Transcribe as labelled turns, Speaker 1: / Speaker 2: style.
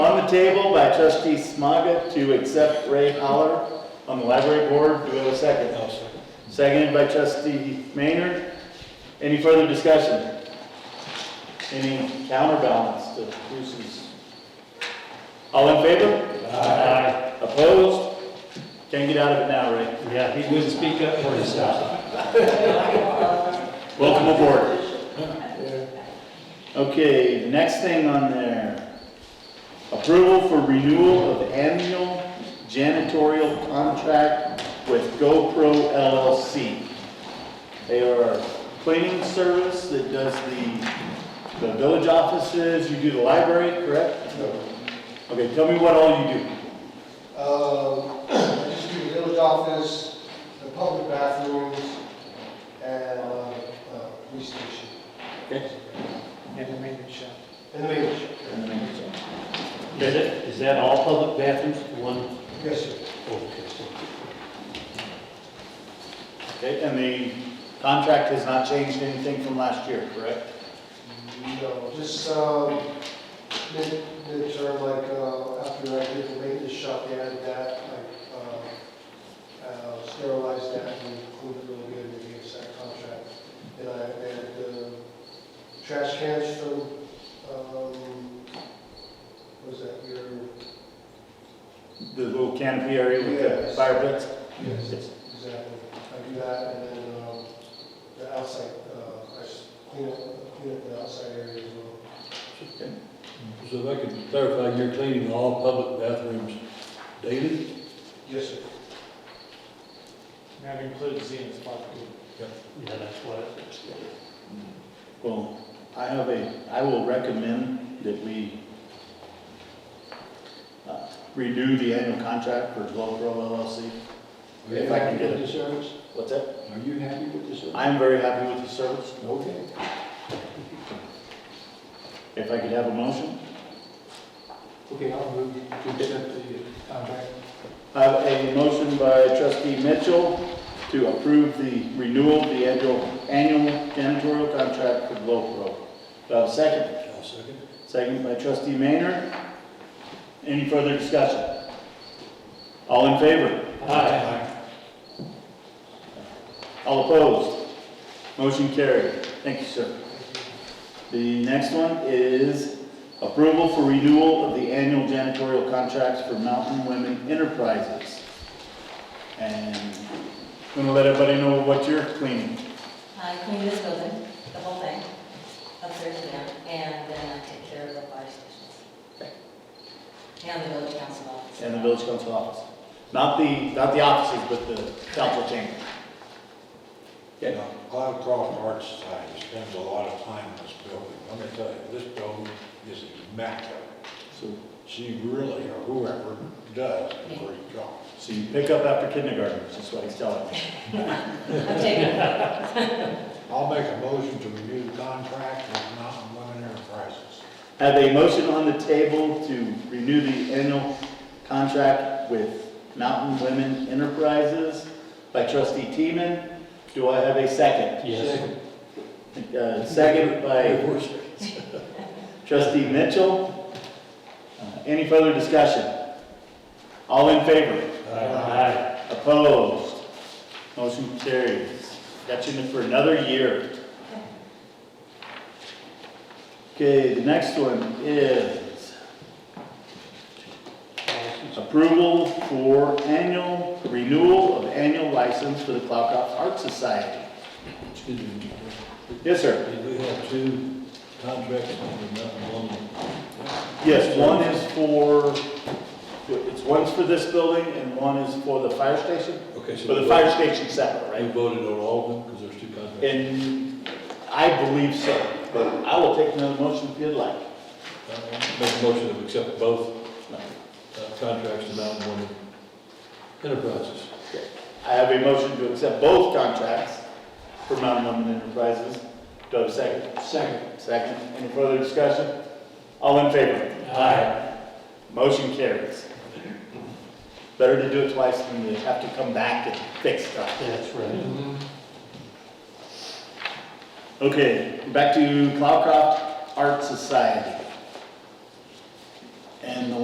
Speaker 1: table by trustee Smaga to accept Ray Holler on the library board. Do we have a second?
Speaker 2: I'll second.
Speaker 1: Seconded by trustee Maynard. Any further discussion? Any counterbalance to Bruce's? All in favor? Aye. Opposed? Can't get out of it now, Ray.
Speaker 2: Yeah, he wouldn't speak up for himself.
Speaker 1: Welcome aboard. Okay, next thing on there. Approval for renewal of annual janitorial contract with GoPro LLC. They are a cleaning service that does the, the village offices, you do the library, correct? Okay, tell me what all you do.
Speaker 3: Uh, I just do the village office, the public bathrooms, and, uh, uh, police station.
Speaker 4: And the maintenance shop.
Speaker 3: And the maintenance shop.
Speaker 2: Is it, is that all public bathrooms, one?
Speaker 3: Yes, sir.
Speaker 2: Okay, so
Speaker 1: Okay, and the contract has not changed anything from last year, correct?
Speaker 3: No, just, um, mid, midterm, like, uh, after I did the maintenance shop, they added that, like, uh, uh, sterilized that and included it really good in the VSAC contract. And I added the trash cans from, um, what was that, your,
Speaker 1: The little canopy area with the
Speaker 3: Yes.
Speaker 1: fire pits?
Speaker 3: yes, exactly. I do that and then, um, the outside, uh, I just clean up, clean up the outside area as well.
Speaker 5: So if I could clarify, you're cleaning all public bathrooms daily?
Speaker 3: Yes, sir.
Speaker 4: That includes Zenith Park.
Speaker 2: Yeah, that's what it is.
Speaker 1: Well, I have a, I will recommend that we uh, renew the annual contract for Global LLC.
Speaker 5: Are you
Speaker 1: If I can
Speaker 5: happy
Speaker 1: get
Speaker 5: with
Speaker 1: it.
Speaker 5: the service?
Speaker 1: What's that?
Speaker 5: Are you happy with the service?
Speaker 1: I am very happy with the service.
Speaker 5: Okay.
Speaker 1: If I could have a motion.
Speaker 5: Okay, I'll move to accept the contract.
Speaker 1: I Have a motion by trustee Mitchell to approve the renewal of the annual, annual janitorial contract for Global. Do I have a second?
Speaker 5: I'll second.
Speaker 1: Second by trustee Maynard. Any further discussion? All in favor?
Speaker 2: Aye.
Speaker 1: All opposed? Motion carried. Thank you, sir. The next one is approval for renewal of the annual janitorial contracts for Mountain Women Enterprises. And I'm gonna let everybody know what you're cleaning.
Speaker 6: I Uh, clean this building, the whole thing, upstairs and down, and then I take care of the fire stations. And the village council office.
Speaker 1: And the village council office. Not the, not the offices, but the council chamber.
Speaker 5: You know, Cloudcroft Arts Society spends a lot of time in this building. Let me tell you, this building is immaculate.
Speaker 1: So,
Speaker 5: She really, or whoever does, a great job.
Speaker 1: so you pick up after kindergartners, is what he's telling me.
Speaker 6: I'm taking,
Speaker 5: I'll make a motion to renew the contract with Mountain Women Enterprises.
Speaker 1: Have a motion on the table to renew the annual contract with Mountain Women Enterprises by trustee Teeman. Do I have a second?
Speaker 2: Yes.
Speaker 1: Uh, Second by trustee Mitchell. Uh, Any further discussion? All in favor?
Speaker 2: Aye.
Speaker 1: Opposed? Motion carries. Got you for another year. Okay, the next one is Approval for annual, renewal of annual license for the Cloudcroft Art Society.
Speaker 5: Excuse me.
Speaker 1: Yes, sir.
Speaker 5: Did we have two contracts under Mountain Women?
Speaker 1: Yes, one is for, it's one's for this building and one is for the fire station.
Speaker 5: Okay, so.
Speaker 1: For the fire station separate,
Speaker 5: We
Speaker 1: right?
Speaker 5: voted on all of them because there's two contracts.
Speaker 1: And I believe so, but I will take another motion if you'd like.
Speaker 5: Make a motion to accept both uh, contracts to Mountain Women Enterprises.
Speaker 1: I have a motion to accept both contracts for Mountain Women Enterprises. Do I have a second?
Speaker 2: Second.
Speaker 1: Second. Any further discussion? All in favor?
Speaker 2: Aye.
Speaker 1: Motion carries. Better to do it twice than to have to come back and fix stuff.
Speaker 2: That's right.
Speaker 1: Okay, back to Cloudcroft Art Society.